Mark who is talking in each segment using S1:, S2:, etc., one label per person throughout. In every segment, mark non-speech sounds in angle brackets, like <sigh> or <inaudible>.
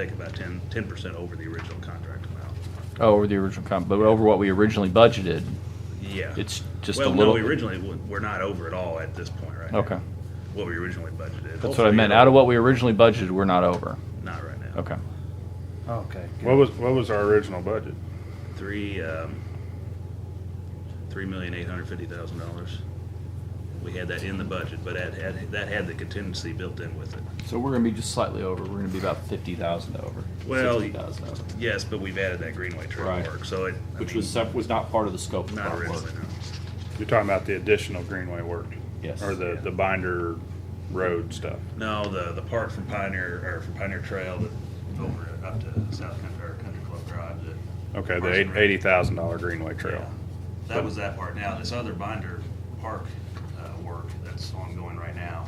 S1: take about ten, ten percent over the original contract amount.
S2: Oh, over the original comp, but over what we originally budgeted.
S1: Yeah.
S2: It's just a
S1: Well, no,
S2: little-
S1: we originally, w- we're not over at all at this point right now.
S2: Okay.
S1: What we originally budgeted.
S2: That's what I meant. Out of what we originally budgeted, we're not over.
S1: Not right now.
S2: Okay.
S3: Okay.
S4: What was, what was our original budget?
S1: Three, um, three million eight hundred fifty thousand dollars. We had that in the budget, but that had, that had the contingency built in with it.
S2: So we're gonna be just slightly over. We're gonna be about fifty thousand over.
S1: Well,
S2: 60,000 over,
S1: Yes, but we've added that Greenway trail
S2: Right.
S1: work, so it. I
S2: which
S1: mean,
S2: was sep- was not part of the scope of
S1: Not
S2: our work.
S1: originally, no.
S4: You're talking about the additional Greenway work?
S2: Yes.
S4: Or the, the binder road stuff?
S1: No, the, the part from Pioneer, or from Pioneer Trail that over up to South Country, or Country Club Drive that.
S4: Okay, the
S1: Parks and
S4: eight-
S1: Rec-
S4: eighty thousand dollar Greenway Trail.
S1: Yeah. That was that part. Now, this other binder park, uh, work that's ongoing right now,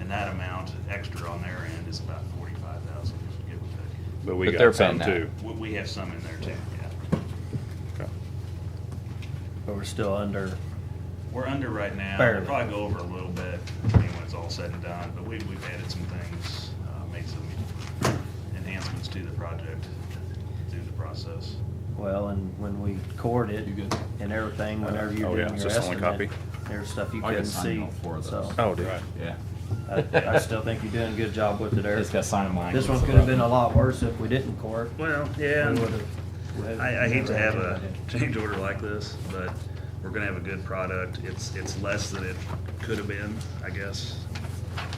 S1: and that amount extra on their end is about forty-five thousand, give or take.
S4: But we
S2: But they're
S4: got some
S2: paying that.
S4: too.
S1: We, we have some in there too, yeah.
S4: Okay.
S3: But we're still under,
S1: We're under right now. We'll
S3: Barely.
S1: probably go over a little bit, I mean, when it's all said and done, but we, we've added some things, uh, made some enhancements to the project through the process.
S3: well, and when we cored it
S2: You good?
S3: and everything, whenever
S4: Oh,
S3: you're
S4: yeah,
S3: doing
S4: is
S3: your
S4: this the only
S3: estimate,
S4: copy?
S3: there's stuff you
S2: I can
S3: couldn't
S2: sign
S3: see,
S2: all four of
S3: so.
S2: those.
S4: Oh, dude.
S2: Yeah.
S3: I, I still think you're doing a good job with it, Eric.
S2: Just gotta sign mine.
S3: This one could have been a lot worse if we didn't core it.
S1: Well,
S3: We would've- we had-
S1: I, I hate to have a <laughs>
S3: never had
S1: change order like this, but we're gonna have a good product. It's, it's less than it could have been, I guess.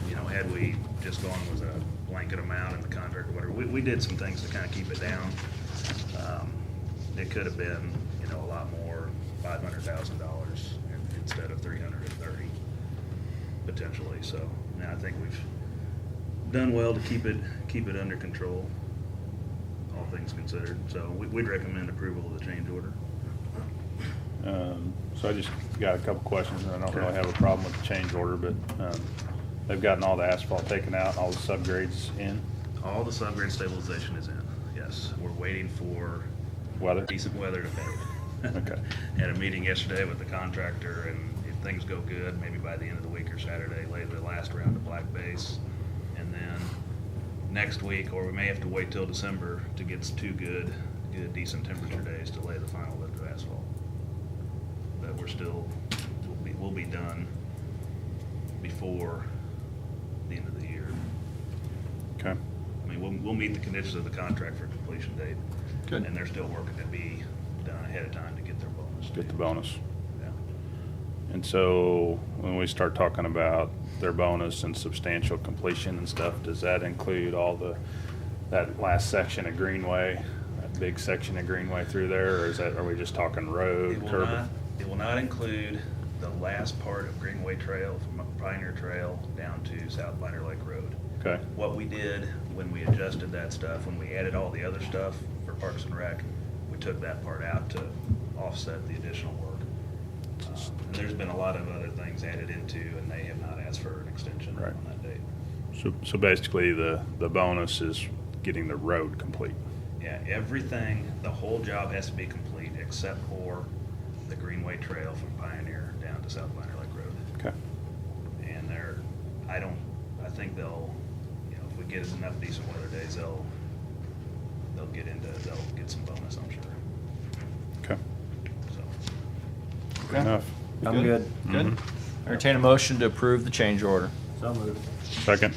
S1: You know, had we just gone with a blanket amount in the contract or whatever. We, we did some things to kind of keep it down. Um, It could have been, you know, a lot more, five hundred thousand dollars instead of three hundred and thirty potentially, so. Now, I think we've done well to keep it, keep it under control all things considered. So we- we'd recommend approval of the change order.
S4: Um, So I just got a couple questions, and I don't really have a problem with the change order, but um, they've gotten all the asphalt taken out, and all the subgrades in,
S1: All the subgrade stabilization is in, yes. We're waiting for
S4: weather.
S1: decent weather to pave.
S4: Okay.
S1: Had a meeting yesterday with the contractor, and if things go good, maybe by the end of the week or Saturday, lay the last round of black base. And then next week, or we may have to wait till December to get s- two good, good decent temperature days to lay the final lift of asphalt. But we're still, we'll be, we'll be done before the end of the year.
S4: Okay.
S1: I mean, we'll, we'll meet the conditions of the contract for completion date.
S2: Good.
S1: And they're still working to be done ahead of time to get their bonus.
S4: Get the bonus.
S1: Yeah.
S4: And so when we start talking about their bonus and substantial completion and stuff, does that include all the, that last section of Greenway? That big section of Greenway through there, or is that, are we just talking
S1: It
S4: road,
S1: will not,
S4: curb?
S1: it will not include the last part of Greenway Trail from Pioneer Trail down to South Minor Lake Road.
S4: Okay,
S1: What we did when we adjusted that stuff, when we added all the other stuff for Parks and Rec, we took that part out to offset the additional work. Um, And there's been a lot of other things added into, and they have not asked for an extension
S4: Right.
S1: on that date.
S4: so, so basically the, the bonus is getting the road complete.
S1: Yeah, everything, the whole job has to be complete except for the Greenway Trail from Pioneer down to South Minor Lake Road.
S4: Okay.
S1: And they're, I don't, I think they'll, you know, if we get us enough decent weather days, they'll, they'll get into, they'll get some bonus, I'm sure,
S4: Okay.
S1: so.
S4: Good enough.
S3: I'm good.
S2: Good.
S1: Mm-hmm.
S2: Entertain a motion to approve the change order.
S3: So moved.
S4: Second,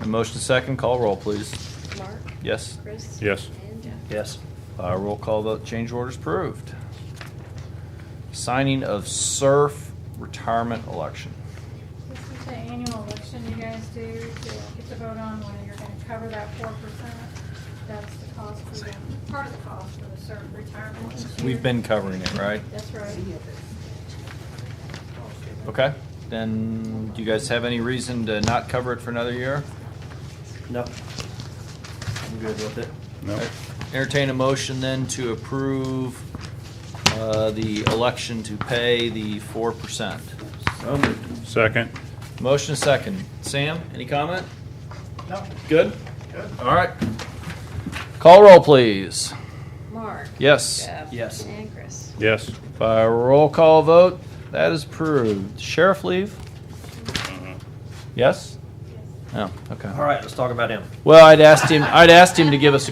S2: A motion second, call roll, please.
S5: Mark?
S2: Yes.
S5: Chris?
S4: Yes.
S5: And Jeff?
S3: Yes.
S2: Uh, roll call vote, change orders approved. Signing of SURF retirement election.
S6: This is the annual election you guys do to get to vote on whether you're gonna cover that four percent. That's the cost for the, part of the cost for the certain retirement each year.
S2: We've been covering it, right?
S6: That's right.
S2: Okay, then, do you guys have any reason to not cover it for another year?
S3: Nope. I'm good with it.
S4: no,
S2: Entertain a motion then to approve, uh, the election to pay the four percent.
S3: So moved.
S4: second,
S2: Motion second. Sam, any comment?
S3: No.
S2: Good? Good. All right. Call roll, please.
S5: Mark?
S2: Yes.
S5: Jeff?
S3: Yes.
S5: And Chris?
S4: yes.
S2: By roll call vote, that is approved. Sheriff leave? Yes?
S6: Yes.
S2: Oh, okay.
S3: Mm-hmm. All right, let's talk about him.
S2: Well, I'd asked him, I'd asked him to give us a